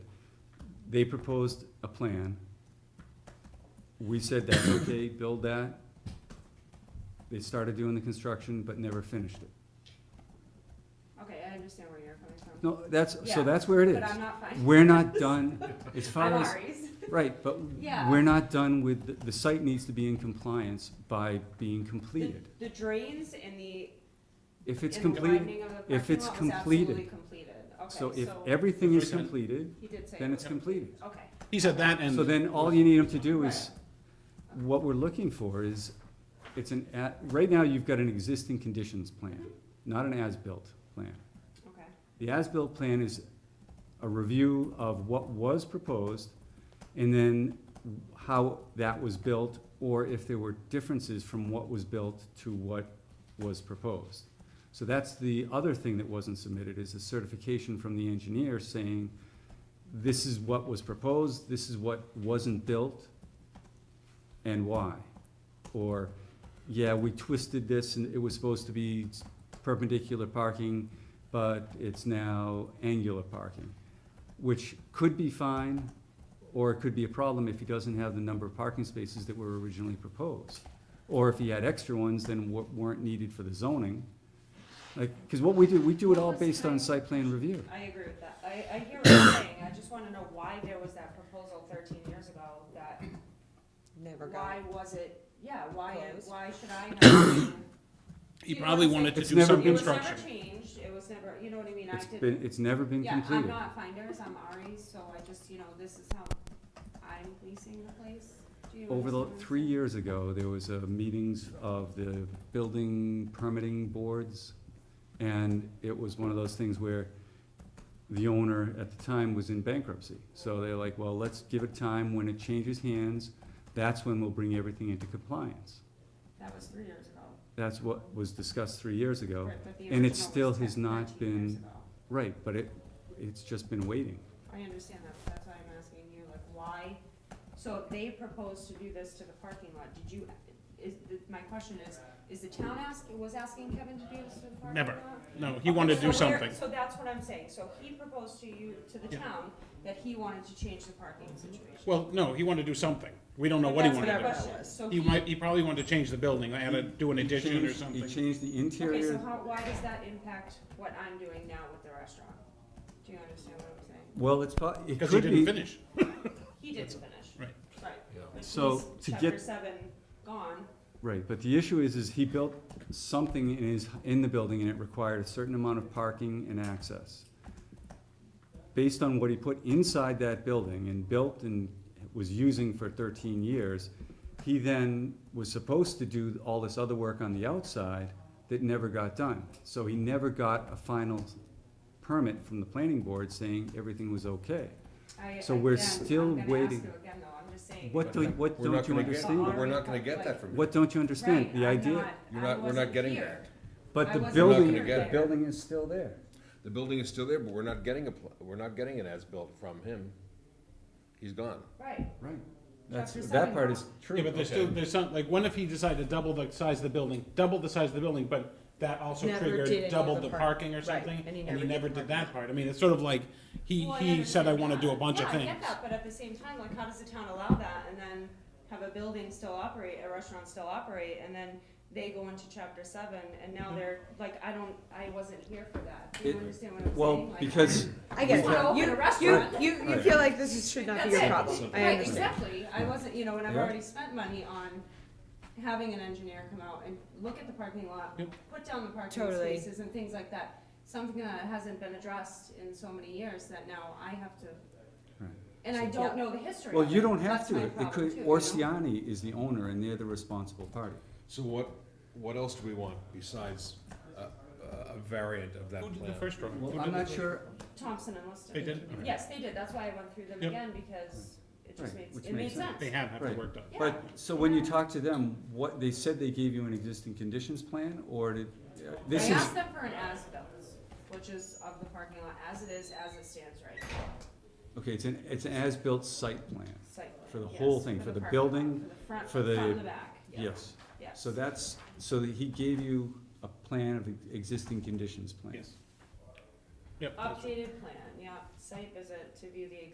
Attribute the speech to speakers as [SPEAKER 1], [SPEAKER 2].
[SPEAKER 1] They proposed a plan. We said that's okay, build that. They started doing the construction, but never finished it.
[SPEAKER 2] Okay, I understand where you're coming from.
[SPEAKER 1] No, that's, so
[SPEAKER 2] Yeah,
[SPEAKER 1] that's where it
[SPEAKER 2] But I'm
[SPEAKER 1] is.
[SPEAKER 2] not fine.
[SPEAKER 1] We're not done, as
[SPEAKER 2] I'm
[SPEAKER 1] far as,
[SPEAKER 2] Ari's.
[SPEAKER 1] right, but
[SPEAKER 2] Yeah.
[SPEAKER 1] we're not done with, the- the site needs to be in compliance by being completed.
[SPEAKER 2] The drains and the,
[SPEAKER 1] If
[SPEAKER 2] and
[SPEAKER 1] it's
[SPEAKER 2] the
[SPEAKER 1] completed,
[SPEAKER 2] widening of the
[SPEAKER 1] if
[SPEAKER 2] parking
[SPEAKER 1] it's
[SPEAKER 2] lot was
[SPEAKER 1] completed.
[SPEAKER 2] absolutely completed. Okay,
[SPEAKER 1] so if
[SPEAKER 2] so
[SPEAKER 1] everything
[SPEAKER 3] If
[SPEAKER 1] is
[SPEAKER 3] we can-
[SPEAKER 1] completed,
[SPEAKER 2] he did say,
[SPEAKER 1] then it's
[SPEAKER 2] okay.
[SPEAKER 1] completed.
[SPEAKER 2] Okay,
[SPEAKER 3] He said that and.
[SPEAKER 1] So then all you need them to do is, what we're looking for is, it's an, a- right now you've got an existing conditions plan, not an as-built plan.
[SPEAKER 2] okay,
[SPEAKER 1] The as-built plan is a review of what was proposed and then how that was built or if there were differences from what was built to what was proposed. So that's the other thing that wasn't submitted is a certification from the engineer saying, this is what was proposed, this is what wasn't built and why. Or, yeah, we twisted this and it was supposed to be perpendicular parking, but it's now angular parking, which could be fine, or it could be a problem if he doesn't have the number of parking spaces that were originally proposed. Or if he had extra ones than wa- weren't needed for the zoning. Like, cause what we do, we do it all
[SPEAKER 2] What was
[SPEAKER 1] based on
[SPEAKER 2] time?
[SPEAKER 1] site plan review.
[SPEAKER 2] I agree with that. I, I hear what you're saying. I just wanna know why there was that proposal thirteen years ago that,
[SPEAKER 4] Never got
[SPEAKER 2] why
[SPEAKER 4] it.
[SPEAKER 2] was it, yeah, why,
[SPEAKER 4] Closed.
[SPEAKER 2] why should I have?
[SPEAKER 3] He probably wanted to
[SPEAKER 1] It's
[SPEAKER 3] do
[SPEAKER 1] never
[SPEAKER 3] some
[SPEAKER 1] been-
[SPEAKER 2] It was never
[SPEAKER 3] construction.
[SPEAKER 2] changed. It was never, you know what I mean? I
[SPEAKER 1] It's
[SPEAKER 2] didn't.
[SPEAKER 1] been, it's never been
[SPEAKER 2] Yeah, I'm
[SPEAKER 1] completed.
[SPEAKER 2] not finders, I'm Ari's, so I just, you know, this is how I'm leasing the place. Do you
[SPEAKER 1] Over the,
[SPEAKER 2] understand what I'm
[SPEAKER 1] three
[SPEAKER 2] saying?
[SPEAKER 1] years ago, there was a meetings of the building permitting boards, and it was one of those things where the owner at the time was in bankruptcy, so they're like, well, let's give it time, when it changes hands, that's when we'll bring everything into compliance.
[SPEAKER 2] That was three years ago.
[SPEAKER 1] That's what was discussed three years ago,
[SPEAKER 2] Right, but the
[SPEAKER 1] Oh. and it
[SPEAKER 2] original
[SPEAKER 1] still
[SPEAKER 2] was
[SPEAKER 1] has
[SPEAKER 2] 10,
[SPEAKER 1] not
[SPEAKER 2] 13 years
[SPEAKER 1] been-
[SPEAKER 2] ago.
[SPEAKER 1] right, but it, it's just been waiting.
[SPEAKER 2] I understand that, but that's why I'm asking you, like, why, so if they proposed to do this to the parking lot, did you, is, the- my question is, is the town ask, was asking Kevin to do this to the parking lot?
[SPEAKER 3] Never. No, he wanted to
[SPEAKER 2] So
[SPEAKER 3] do
[SPEAKER 2] where-
[SPEAKER 3] something.
[SPEAKER 2] So that's what I'm saying, so he proposed to you, to the
[SPEAKER 3] Yeah.
[SPEAKER 2] town, that he wanted to change the parking situation.
[SPEAKER 3] Well, no, he wanted to do something. We don't know what he
[SPEAKER 2] That's
[SPEAKER 3] wanted
[SPEAKER 2] my
[SPEAKER 3] to
[SPEAKER 2] question. So
[SPEAKER 3] do. He might, he probably wanted to change the building, add a, do an
[SPEAKER 1] He
[SPEAKER 3] addition or
[SPEAKER 1] changed- He
[SPEAKER 3] something.
[SPEAKER 1] changed the
[SPEAKER 2] Okay, so
[SPEAKER 1] interior,
[SPEAKER 2] how, why does that impact what I'm doing now with the restaurant? Do you understand what I'm saying?
[SPEAKER 1] well, it's, po- it could be.
[SPEAKER 3] Because he didn't finish.
[SPEAKER 2] He didn't finish,
[SPEAKER 3] Right.
[SPEAKER 2] right. But
[SPEAKER 1] So,
[SPEAKER 2] he's
[SPEAKER 1] to get-
[SPEAKER 2] Chapter seven gone,
[SPEAKER 1] Right, but the issue is, is he built something in his, in the building and it required a certain amount of parking and access. Based on what he put inside that building and built and was using for thirteen years, he then was supposed to do all this other work on the outside that never got done. So he never got a final permit from the planning board saying everything was okay.
[SPEAKER 2] I,
[SPEAKER 1] So
[SPEAKER 2] again,
[SPEAKER 1] we're
[SPEAKER 2] I'm
[SPEAKER 1] still
[SPEAKER 2] gonna ask
[SPEAKER 1] waiting.
[SPEAKER 2] you again though, I'm just saying.
[SPEAKER 1] What do, what
[SPEAKER 5] We're not
[SPEAKER 1] don't you
[SPEAKER 5] gonna get-
[SPEAKER 1] understand?
[SPEAKER 5] But we're not gonna get that from you.
[SPEAKER 1] What don't you understand?
[SPEAKER 2] Right,
[SPEAKER 1] The
[SPEAKER 2] I'm
[SPEAKER 1] idea,
[SPEAKER 5] You're
[SPEAKER 2] I
[SPEAKER 5] not, we're
[SPEAKER 2] wasn't
[SPEAKER 5] not getting
[SPEAKER 2] here.
[SPEAKER 5] that.
[SPEAKER 1] but
[SPEAKER 2] I
[SPEAKER 1] the
[SPEAKER 2] wasn't
[SPEAKER 1] building,
[SPEAKER 5] here
[SPEAKER 1] the
[SPEAKER 5] there.
[SPEAKER 1] building is still there.
[SPEAKER 5] The building is still there, but we're not getting a, pl- we're not getting an as-built from him. He's gone.
[SPEAKER 2] Right,
[SPEAKER 1] Right, that's,
[SPEAKER 2] Chapter
[SPEAKER 1] that
[SPEAKER 2] seven.
[SPEAKER 1] part is true.
[SPEAKER 3] Yeah, but there's still, there's some, like, what if he decided to double the size of the building, double the size of the building, but that also
[SPEAKER 4] Never did any
[SPEAKER 3] triggered
[SPEAKER 4] of
[SPEAKER 3] double
[SPEAKER 4] the
[SPEAKER 3] the
[SPEAKER 4] park-
[SPEAKER 3] parking or
[SPEAKER 4] right,
[SPEAKER 3] something?
[SPEAKER 4] and he
[SPEAKER 3] And he
[SPEAKER 4] never did
[SPEAKER 3] never
[SPEAKER 4] the
[SPEAKER 3] did
[SPEAKER 4] parking.
[SPEAKER 3] that part. I mean, it's sort of like, he,
[SPEAKER 2] Well,
[SPEAKER 3] he said, I
[SPEAKER 2] understand
[SPEAKER 3] wanna
[SPEAKER 2] that.
[SPEAKER 3] do a bunch of
[SPEAKER 2] Yeah, I
[SPEAKER 3] things.
[SPEAKER 2] get that, but at the same time, like, how does the town allow that and then have a building still operate, a restaurant still operate, and then they go into chapter seven, and
[SPEAKER 3] Mm-hmm.
[SPEAKER 2] now they're, like, I don't, I wasn't here for that, do you
[SPEAKER 1] It-
[SPEAKER 2] understand what I'm saying?
[SPEAKER 1] Well,
[SPEAKER 2] Like,
[SPEAKER 1] because,
[SPEAKER 4] I get
[SPEAKER 2] Just wanna
[SPEAKER 4] it.
[SPEAKER 2] open a
[SPEAKER 4] You, you,
[SPEAKER 2] restaurant.
[SPEAKER 4] you, you feel like this is- should not be your
[SPEAKER 2] That's it.
[SPEAKER 4] problem. I
[SPEAKER 2] Right,
[SPEAKER 4] understand.
[SPEAKER 2] exactly, I wasn't, you know, and I've
[SPEAKER 1] Yeah.
[SPEAKER 2] already spent money on having an engineer come out and look at the parking lot,
[SPEAKER 3] Yep.
[SPEAKER 2] put down the parking
[SPEAKER 4] Totally.
[SPEAKER 2] spaces and things like that. Something that hasn't been addressed in so many years that now I have to,
[SPEAKER 1] Right.
[SPEAKER 2] and I
[SPEAKER 4] Yeah.
[SPEAKER 2] don't know the history
[SPEAKER 1] well,
[SPEAKER 2] of
[SPEAKER 1] you
[SPEAKER 2] it.
[SPEAKER 1] don't have
[SPEAKER 2] That's
[SPEAKER 1] to,
[SPEAKER 2] my
[SPEAKER 1] it
[SPEAKER 2] problem
[SPEAKER 1] could,
[SPEAKER 2] too, you know?
[SPEAKER 1] Orsiani is the owner and they're the responsible party.
[SPEAKER 5] So what, what else do we want besides a, a variant of that
[SPEAKER 3] Who did the
[SPEAKER 5] plan?
[SPEAKER 3] first drawing? Who
[SPEAKER 1] Well,
[SPEAKER 3] did
[SPEAKER 1] I'm
[SPEAKER 3] the
[SPEAKER 1] not
[SPEAKER 3] first-
[SPEAKER 1] sure,
[SPEAKER 2] Thompson and Lister.
[SPEAKER 3] They did? Okay.
[SPEAKER 2] Yes, they did, that's why I went through them
[SPEAKER 3] Yep.
[SPEAKER 2] again, because it just
[SPEAKER 1] Right,
[SPEAKER 2] makes,
[SPEAKER 1] which
[SPEAKER 2] it made
[SPEAKER 1] makes sense.
[SPEAKER 2] sense.
[SPEAKER 3] They have, have the
[SPEAKER 1] Right.
[SPEAKER 3] work done.
[SPEAKER 1] but, so when you talk to them, what, they said they gave you an existing conditions plan or did, uh, this
[SPEAKER 2] I
[SPEAKER 1] is,
[SPEAKER 2] asked them for an as-built, which is of the parking lot as it is, as it stands right now.
[SPEAKER 1] okay, it's an, it's an as-built site plan,
[SPEAKER 2] Site plan,
[SPEAKER 1] For the
[SPEAKER 2] yes,
[SPEAKER 1] whole thing, for the
[SPEAKER 2] parking lot,
[SPEAKER 1] building,
[SPEAKER 2] For
[SPEAKER 1] for
[SPEAKER 2] the front, the front
[SPEAKER 1] the-
[SPEAKER 2] and the back, yeah,
[SPEAKER 1] yes.
[SPEAKER 2] yes.
[SPEAKER 1] So that's, so that he gave you a plan of e-, existing conditions plan.
[SPEAKER 3] Yes. Yep. that's right.
[SPEAKER 2] Updated plan, yeah, site visit to view the